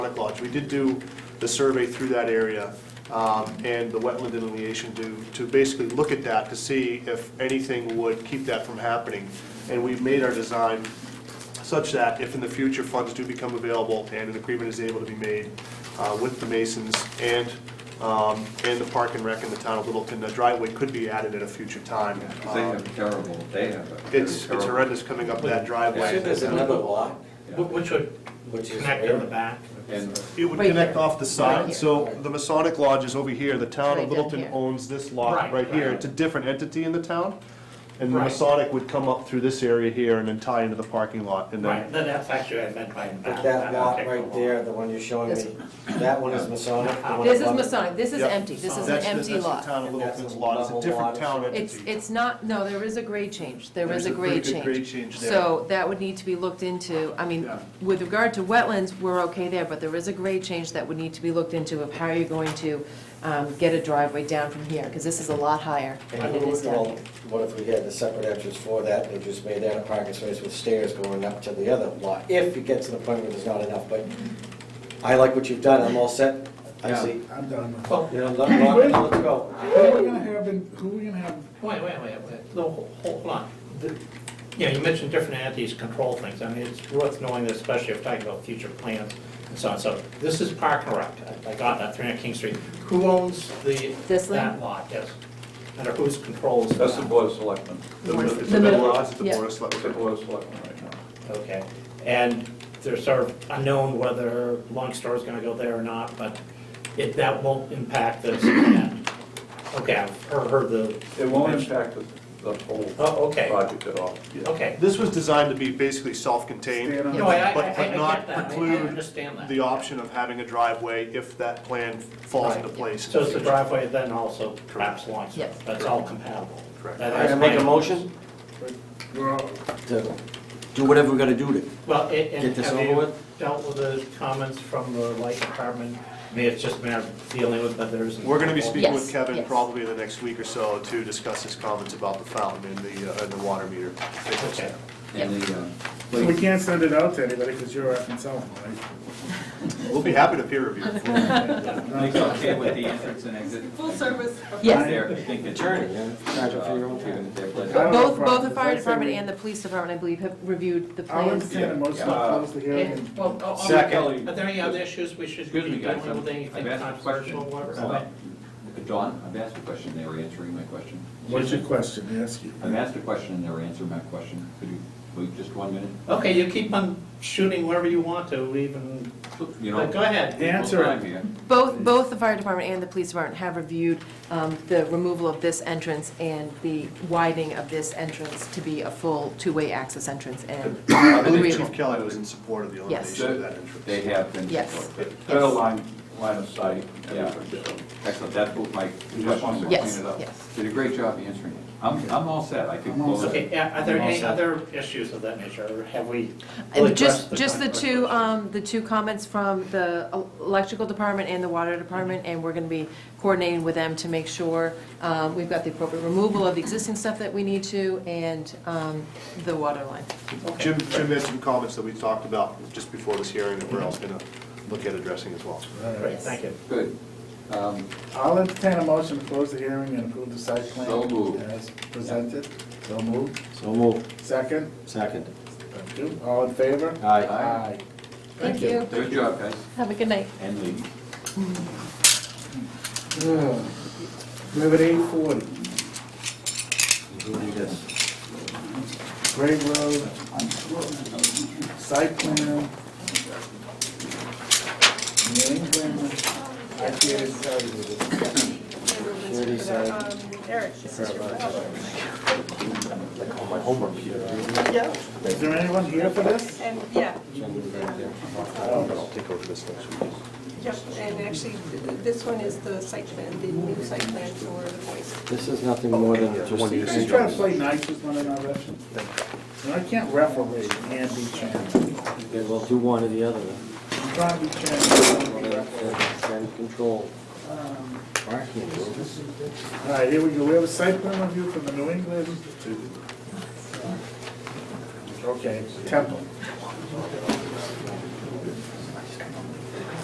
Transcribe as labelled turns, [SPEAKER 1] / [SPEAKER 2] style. [SPEAKER 1] Hunt Lodge. We did do the survey through that area um, and the wetland delineation to, to basically look at that to see if anything would keep that from happening. And we've made our design such that if in the future funds do become available and an agreement is able to be made uh, with the Masons and, um, and the Park and Rec in the town of Littleton, the driveway could be added at a future time. Uh,
[SPEAKER 2] Because they have terrible, they have a. very
[SPEAKER 1] It's, it's
[SPEAKER 2] terrible-
[SPEAKER 1] horrendous coming up that
[SPEAKER 2] Yeah.
[SPEAKER 1] driveway.
[SPEAKER 3] there's another lot,
[SPEAKER 2] Yeah.
[SPEAKER 4] Wh- Which would
[SPEAKER 3] which is
[SPEAKER 4] connect in the
[SPEAKER 3] where?
[SPEAKER 4] back.
[SPEAKER 2] And
[SPEAKER 1] It would
[SPEAKER 5] Right
[SPEAKER 1] connect
[SPEAKER 5] here.
[SPEAKER 1] off the
[SPEAKER 5] Right
[SPEAKER 1] side,
[SPEAKER 5] here.
[SPEAKER 1] so the Masonic Lodge is over here, the town
[SPEAKER 5] Right
[SPEAKER 1] of
[SPEAKER 5] down
[SPEAKER 1] Littleton
[SPEAKER 5] here.
[SPEAKER 1] owns this lot
[SPEAKER 4] Right,
[SPEAKER 1] right here,
[SPEAKER 4] right.
[SPEAKER 1] it's a different entity in the town. And the
[SPEAKER 4] Right.
[SPEAKER 1] Masonic would come up through this area here and then tie into the parking lot and
[SPEAKER 4] Right,
[SPEAKER 1] then,
[SPEAKER 4] then that's actually what I meant by
[SPEAKER 3] But
[SPEAKER 4] back.
[SPEAKER 3] that lot
[SPEAKER 4] particular
[SPEAKER 3] right
[SPEAKER 4] lot.
[SPEAKER 3] there, the one you're showing
[SPEAKER 5] This
[SPEAKER 3] me, that one is Masonic? the one
[SPEAKER 5] This is
[SPEAKER 3] above it?
[SPEAKER 5] Masonic, this is
[SPEAKER 1] Yep.
[SPEAKER 5] empty, this is an
[SPEAKER 1] that's, that's
[SPEAKER 5] empty
[SPEAKER 1] the
[SPEAKER 5] lot.
[SPEAKER 1] town of
[SPEAKER 3] And that's
[SPEAKER 1] Littleton's
[SPEAKER 3] a
[SPEAKER 1] lot, it's a
[SPEAKER 3] level
[SPEAKER 1] different
[SPEAKER 3] lot.
[SPEAKER 1] town entity.
[SPEAKER 5] It's, it's not, no, there is a grade change, there
[SPEAKER 1] There's
[SPEAKER 5] is
[SPEAKER 1] a
[SPEAKER 5] a
[SPEAKER 1] pretty
[SPEAKER 5] grade
[SPEAKER 1] good
[SPEAKER 5] change.
[SPEAKER 1] grade change there.
[SPEAKER 5] So that would need to be looked into, I mean,
[SPEAKER 1] Yeah.
[SPEAKER 5] with regard to wetlands, we're okay there, but there is a grade change that would need to be looked into of how you're going to um, get a driveway down from here, because this is a lot higher than
[SPEAKER 3] And
[SPEAKER 5] it is down
[SPEAKER 3] well,
[SPEAKER 5] here.
[SPEAKER 3] what if we had the separate entrance for that, and just made that a parking space with stairs going up to the other lot? If it gets to the point where there's not enough, but I like what you've done, I'm all set, I
[SPEAKER 2] Yeah.
[SPEAKER 3] see.
[SPEAKER 6] I'm done with
[SPEAKER 3] You know, let- let- let's go.
[SPEAKER 6] Who are we gonna have, in- who are we gonna have,
[SPEAKER 4] Wait, wait, wait, wait, no, ho- hold on. The- Yeah, you mentioned different entities control things, I mean, it's worth knowing this, especially if you're talking about future plans and so on, so this is Park and Rec, I- I got that, 300 King Street. Who owns the,
[SPEAKER 5] This
[SPEAKER 4] that
[SPEAKER 5] land?
[SPEAKER 4] lot, yes? Under whose control is that?
[SPEAKER 2] that's the board of selectmen.
[SPEAKER 5] The board of-
[SPEAKER 2] It's
[SPEAKER 5] the middle-
[SPEAKER 2] lot.
[SPEAKER 1] It's the
[SPEAKER 5] yeah.
[SPEAKER 1] Board of Selectmen.
[SPEAKER 2] It's the board of selectmen right now.
[SPEAKER 4] Okay, and there's sort of unknown whether Long Star is gonna go there or not, but it, that won't impact this. plan. Okay, I've heard heard the.
[SPEAKER 2] It won't impact the, the whole
[SPEAKER 4] Oh, okay,
[SPEAKER 2] project at all. Yeah.
[SPEAKER 4] okay.
[SPEAKER 1] This was designed to be basically self-contained.
[SPEAKER 2] Stand on
[SPEAKER 4] No, I, I, I
[SPEAKER 1] But- but
[SPEAKER 4] I
[SPEAKER 1] not
[SPEAKER 4] get that, I- I
[SPEAKER 1] preclude
[SPEAKER 4] understand that.
[SPEAKER 1] the option of having a driveway if that plan falls into
[SPEAKER 4] Right.
[SPEAKER 1] place. in
[SPEAKER 4] So it's the
[SPEAKER 1] future.
[SPEAKER 4] driveway then also perhaps Long Star,
[SPEAKER 5] Yes.
[SPEAKER 4] that's all compatible.
[SPEAKER 1] Correct.
[SPEAKER 4] That
[SPEAKER 3] All
[SPEAKER 4] is
[SPEAKER 3] right, I make a
[SPEAKER 4] my-
[SPEAKER 3] motion to do whatever we gotta do to.
[SPEAKER 4] Well, a- and
[SPEAKER 3] Get this
[SPEAKER 4] have
[SPEAKER 3] over
[SPEAKER 4] you
[SPEAKER 3] with?
[SPEAKER 4] dealt with the comments from the light department? I mean, it's just a matter of dealing with others. and-
[SPEAKER 1] We're gonna be speaking with
[SPEAKER 5] Yes,
[SPEAKER 1] Kevin
[SPEAKER 5] yes.
[SPEAKER 1] probably in the next week or so to discuss his comments about the fountain and the, uh, and the water meter.
[SPEAKER 4] Okay.
[SPEAKER 2] And the, uh,
[SPEAKER 6] so we can't send it out to anybody, because you're up in cell phone,
[SPEAKER 1] We'll be happy to peer review.
[SPEAKER 7] It's okay with the entrance and exit.
[SPEAKER 8] Full service.
[SPEAKER 5] Yes.
[SPEAKER 7] There, I think it's-
[SPEAKER 3] Attorney, yeah, charge
[SPEAKER 7] uh,
[SPEAKER 3] it for your own time.
[SPEAKER 2] they're
[SPEAKER 6] right?
[SPEAKER 2] pledged-
[SPEAKER 6] I don't know
[SPEAKER 5] Both,
[SPEAKER 6] if I-
[SPEAKER 5] both the
[SPEAKER 6] if
[SPEAKER 5] fire
[SPEAKER 6] I say
[SPEAKER 5] department
[SPEAKER 6] we-
[SPEAKER 5] and the police department, I believe, have reviewed the
[SPEAKER 6] I'll
[SPEAKER 5] plans.
[SPEAKER 6] entertain a motion to
[SPEAKER 2] Yeah.
[SPEAKER 6] close the hearing. and-
[SPEAKER 4] Well, oh, oh,
[SPEAKER 2] Second.
[SPEAKER 4] Are there any other issues we should be
[SPEAKER 7] Excuse me,
[SPEAKER 4] dealing
[SPEAKER 7] guys,
[SPEAKER 4] with, anything
[SPEAKER 7] I've asked a question.
[SPEAKER 4] controversial or
[SPEAKER 7] Hold
[SPEAKER 4] whatever?
[SPEAKER 7] on. Don, I've asked a question, they were answering my question.
[SPEAKER 6] What's your question, yes? you-
[SPEAKER 7] I've asked a question and they were answering my question. Could you wait just one minute?
[SPEAKER 4] Okay, you keep on shooting wherever you want to, even,
[SPEAKER 7] You know,
[SPEAKER 4] but go ahead.
[SPEAKER 6] Answer
[SPEAKER 7] time
[SPEAKER 6] it.
[SPEAKER 7] here.
[SPEAKER 5] Both, both the fire department and the police department have reviewed um, the removal of this entrance and the widening of this entrance to be a full two-way access entrance and
[SPEAKER 1] I believe
[SPEAKER 5] agreeable.
[SPEAKER 1] Chief Kelly was in support of the
[SPEAKER 5] Yes.
[SPEAKER 1] elimination of that entrance.
[SPEAKER 7] They have been.
[SPEAKER 5] Yes.
[SPEAKER 7] supportive.
[SPEAKER 2] Better line, line of sight.
[SPEAKER 7] Yeah. Excellent, that's what my
[SPEAKER 2] You
[SPEAKER 7] question
[SPEAKER 2] just
[SPEAKER 7] was,
[SPEAKER 2] want to
[SPEAKER 7] clean
[SPEAKER 5] Yes,
[SPEAKER 7] it up.
[SPEAKER 5] yes.
[SPEAKER 7] Did a great job answering it. I'm, I'm all set, I could
[SPEAKER 2] I'm all
[SPEAKER 7] close
[SPEAKER 4] Okay,
[SPEAKER 7] it.
[SPEAKER 4] yeah, are there any
[SPEAKER 3] Also-
[SPEAKER 4] other issues of that nature, or have we really
[SPEAKER 5] And
[SPEAKER 4] addressed
[SPEAKER 5] just,
[SPEAKER 4] the
[SPEAKER 5] just the two,
[SPEAKER 4] controversial?
[SPEAKER 5] um, the two comments from the electrical department and the water department, and we're gonna be coordinating with them to make sure, um, we've got the appropriate removal of the existing stuff that we need to, and, um, the water line.
[SPEAKER 4] Okay.
[SPEAKER 1] Jim, Jim had some comments that we talked about just before this hearing that we're also gonna look at addressing as well.
[SPEAKER 4] Great, thank you.
[SPEAKER 7] Good. Um,
[SPEAKER 6] I'll entertain a motion to close the hearing and approve the site plan.
[SPEAKER 7] So moved.
[SPEAKER 6] As presented, so moved.
[SPEAKER 3] So move.
[SPEAKER 6] Second,
[SPEAKER 3] Second.
[SPEAKER 6] thank you, all in favor?
[SPEAKER 3] Aye.
[SPEAKER 6] Aye.
[SPEAKER 5] Thank you.
[SPEAKER 7] Good job, guys,
[SPEAKER 5] Have a good night.
[SPEAKER 7] and ladies.
[SPEAKER 6] Ugh. We have at eight forty,
[SPEAKER 3] Including this.
[SPEAKER 6] Grave Road, site plan. New England, I can't tell you this.
[SPEAKER 3] Security's, uh,
[SPEAKER 8] Eric, this is your problem.
[SPEAKER 3] Oh, my homework here.
[SPEAKER 8] Yeah,
[SPEAKER 6] Is there anyone here for this?
[SPEAKER 8] and, yeah,
[SPEAKER 6] Oh,
[SPEAKER 1] Take over this next week.
[SPEAKER 8] yep, and actually, this one is the site plan, the new site plan for the voice.
[SPEAKER 3] This is nothing more than
[SPEAKER 1] Okay, yeah,
[SPEAKER 3] just.
[SPEAKER 1] one
[SPEAKER 6] You guys try to play nice with one another? No, I can't referee and be chairman.
[SPEAKER 3] Okay, well, do one or the other. then.
[SPEAKER 6] I'm trying to be chairman, I
[SPEAKER 3] One
[SPEAKER 6] wanna
[SPEAKER 3] and-
[SPEAKER 6] be referee.
[SPEAKER 3] And control.
[SPEAKER 6] Um,
[SPEAKER 3] Parking.
[SPEAKER 6] All right, here we go, we have a site plan review from the New England. Okay, Temple.